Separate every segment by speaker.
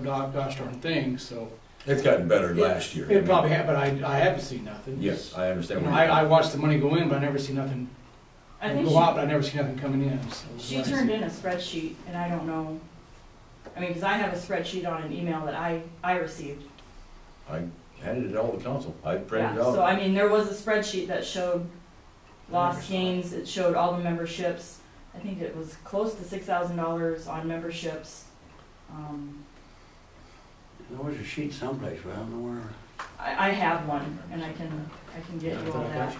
Speaker 1: dog, gosh darn thing, so.
Speaker 2: It's gotten better last year.
Speaker 1: It probably had, but I, I haven't seen nothing.
Speaker 2: Yes, I
Speaker 1: You
Speaker 2: understand.
Speaker 1: know,
Speaker 2: what
Speaker 1: I,
Speaker 2: you're-
Speaker 1: I watched the money go in, but I never see nothing,
Speaker 3: I think
Speaker 1: go out,
Speaker 3: she,
Speaker 1: but I never see nothing coming in, so.
Speaker 3: she turned in a spreadsheet, and I don't know, I mean, because I have a spreadsheet on an email that I, I received.
Speaker 2: Handed it all to council. I printed
Speaker 3: Yeah.
Speaker 2: it
Speaker 3: So
Speaker 2: out.
Speaker 3: I mean, there was a spreadsheet that showed lost gains, it showed all the memberships. I think it was close to six thousand dollars on memberships. Um,
Speaker 4: There was a sheet someplace, but I don't know where.
Speaker 3: I, I have one, and I can, I can get you all that.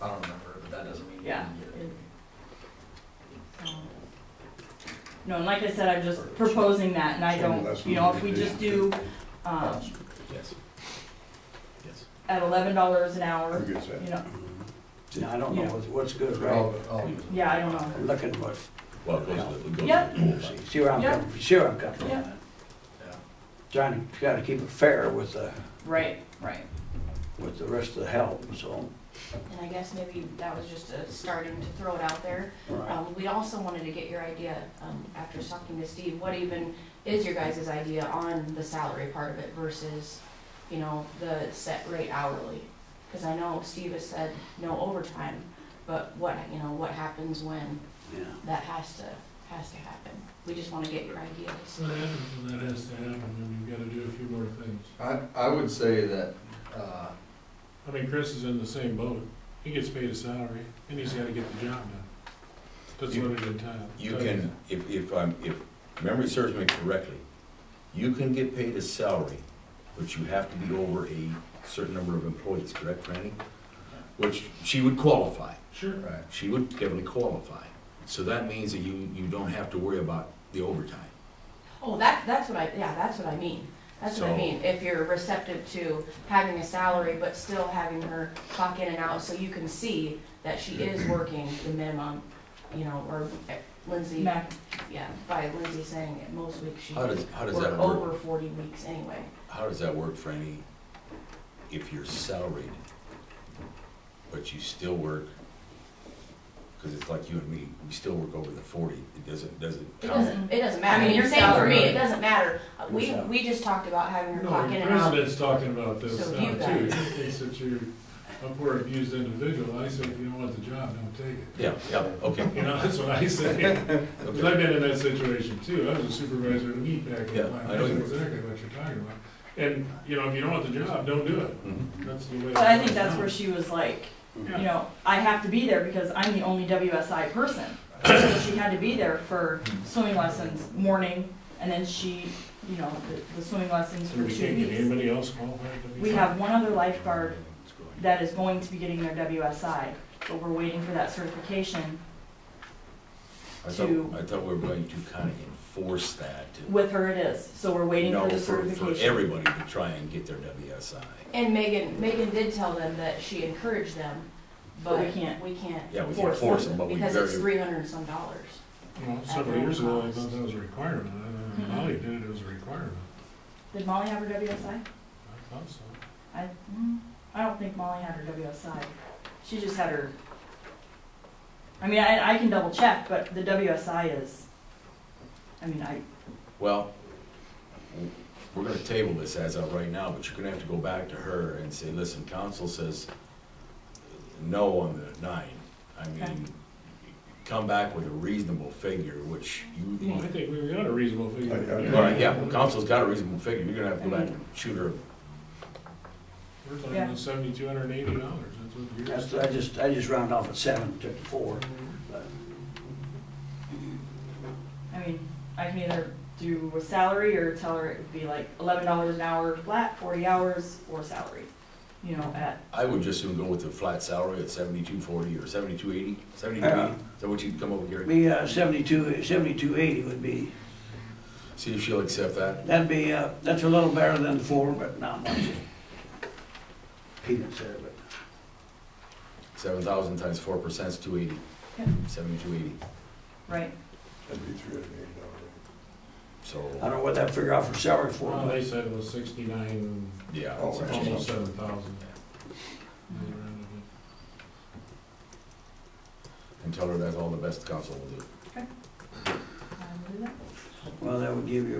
Speaker 5: I don't remember, but that doesn't mean. you
Speaker 3: Yeah.
Speaker 5: didn't get it.
Speaker 3: Um, No, and like I said, I'm just proposing that, and I don't, you know, if we just do, um,
Speaker 2: Yes. Yes.
Speaker 3: at eleven dollars an hour,
Speaker 6: Who gets that?
Speaker 3: you know,
Speaker 4: No, I don't know what's, what's good, right?
Speaker 5: I'll- I'll-
Speaker 3: yeah, I don't know.
Speaker 4: I'm looking at what,
Speaker 2: Well, it goes to the, it goes
Speaker 3: Yep.
Speaker 2: to the pool side.
Speaker 4: see, see where I'm coming, see where I'm coming from.
Speaker 3: Yeah.
Speaker 5: yeah.
Speaker 4: Trying to, gotta keep it fair with the,
Speaker 3: Right, right.
Speaker 4: with the rest of the help, so.
Speaker 7: And I guess maybe that was just a starting to throw it out there.
Speaker 4: right.
Speaker 7: Um, we also wanted to get your idea, um, after talking to Steve, what even is your guys' idea on the salary part of it versus, you know, the set rate hourly? Cause I know Steve has said no overtime, but what, you know, what happens when
Speaker 4: Yeah.
Speaker 7: that has to, has to happen? We just wanna get your ideas.
Speaker 8: That happens when that has to happen, and you've gotta do a few more things.
Speaker 5: I, I would say that, uh,
Speaker 8: I mean, Chris is in the same boat. He gets paid a salary, and he's gotta get the job done. That's
Speaker 2: You-
Speaker 8: what it entitled.
Speaker 2: You can, if, if I'm, if memory serves me correctly, you can get paid a salary, but you have to be over a certain number of employees, correct, Franny? Which she would qualify.
Speaker 8: Sure.
Speaker 5: right,
Speaker 2: She would definitely qualify. So that means that you, you don't have to worry about the overtime.
Speaker 7: Oh, that, that's what I, yeah, that's what I mean. That's what
Speaker 2: So-
Speaker 7: I mean, if you're receptive to having a salary, but still having her clock in and out, so you can see that she is working the minimum, you know, or eh, Lindsay,
Speaker 3: Mac,
Speaker 7: yeah, by Lindsay saying it, most weeks she
Speaker 2: How does, how does
Speaker 7: work
Speaker 2: that work?
Speaker 7: over forty weeks anyway.
Speaker 2: How does that work, Franny, if you're salaried, but you still work? Because it's like you and me, we still work over the forty, it doesn't, doesn't
Speaker 7: It
Speaker 2: count.
Speaker 7: doesn't, it doesn't matter, I mean, you're saying for me, it doesn't matter, Uh, we, we just talked about having her
Speaker 8: No,
Speaker 7: clock in
Speaker 8: the
Speaker 7: and out.
Speaker 8: president's talking about this
Speaker 7: So
Speaker 8: now,
Speaker 7: you
Speaker 8: too.
Speaker 7: guys-
Speaker 8: He thinks that you're a poor abused individual. I said, if you don't want the job, don't take it.
Speaker 2: Yeah, yeah, okay,
Speaker 8: You know, that's what I say. Because
Speaker 2: okay.
Speaker 8: I've been in that situation too. I was a supervisor at a meat pack.
Speaker 2: Yeah, I
Speaker 8: I
Speaker 2: know
Speaker 8: know
Speaker 2: you were.
Speaker 8: exactly what you're talking about. And, you know, if you don't want the job, don't do it.
Speaker 2: Mhm.
Speaker 8: That's the way.
Speaker 3: But I think that's where she was like, you
Speaker 8: Yeah.
Speaker 3: know, I have to be there because I'm the only WSI person. So she had to be there for swimming lessons morning, and then she, you know, the, the swimming lessons
Speaker 8: So
Speaker 3: for
Speaker 8: we
Speaker 3: two
Speaker 8: can't get
Speaker 3: weeks.
Speaker 8: anybody else qualified to be.
Speaker 3: We have one other lifeguard that is going to be getting their WSI, but we're waiting for that certification
Speaker 2: I thought,
Speaker 3: to-
Speaker 2: I thought we were going to kind of enforce that to,
Speaker 3: With her it is, so we're waiting
Speaker 2: no,
Speaker 3: for
Speaker 2: for,
Speaker 3: the
Speaker 2: for
Speaker 3: certification.
Speaker 2: everybody to try and get their WSI.
Speaker 7: And Megan, Megan did tell them that she encouraged them,
Speaker 3: But
Speaker 7: but
Speaker 3: we
Speaker 7: we
Speaker 3: can't.
Speaker 7: can't, we can't
Speaker 2: Yeah, we can force them, but we
Speaker 7: Because it's
Speaker 2: very,
Speaker 7: three hundred and some dollars.
Speaker 8: Well, several years ago, I thought that was a requirement. I
Speaker 3: Mhm.
Speaker 8: don't know, Molly did it, it was a requirement.
Speaker 3: Did Molly have her WSI?
Speaker 8: I thought so.
Speaker 3: I, mm, I don't think Molly had her WSI. She just had her, I mean, I, I can double check, but the WSI is, I mean, I,
Speaker 2: well, we're gonna table this as of right now, but you're gonna have to go back to her and say, listen, council says no on the nine. I
Speaker 3: Okay.
Speaker 2: mean, come back with a reasonable figure, which you,
Speaker 8: Well, I think we got a reasonable figure.
Speaker 6: I- I-
Speaker 2: all right, yeah, well, council's got a reasonable figure, you're gonna have to go back and shoot her.
Speaker 8: We're talking
Speaker 3: Yeah.
Speaker 8: about seventy-two hundred and eighty dollars. That's what yours
Speaker 4: That's, I just, I just rounded off at seven, took the four. but-
Speaker 3: I mean, I can either do a salary or tell her it would be like eleven dollars an hour flat, forty hours, or salary, you know, at,
Speaker 2: I would just soon go with a flat salary at seventy-two forty or seventy-two eighty, seventy-two eighty, is that what you'd come up with, Gary?
Speaker 4: Be uh, seventy-two, seventy-two eighty would be,
Speaker 2: See if she'll accept that.
Speaker 4: that'd be, uh, that's a little better than the four, but not much. Peanuts there, but.
Speaker 2: Seven thousand times four percent is two eighty.
Speaker 3: Yeah.
Speaker 2: Seventy-two eighty,
Speaker 3: right?
Speaker 6: That'd be three hundred and eighty dollars.
Speaker 4: I
Speaker 2: so,
Speaker 4: don't know what that figure out for salary for,
Speaker 8: Well,
Speaker 4: but
Speaker 8: they said it was sixty-nine,
Speaker 2: yeah.
Speaker 6: Oh,
Speaker 2: it's
Speaker 6: right.
Speaker 2: actually-
Speaker 8: almost seven thousand.
Speaker 2: And tell her that's all the best council will do.
Speaker 3: Um, we'll do that.
Speaker 4: Well, that would give you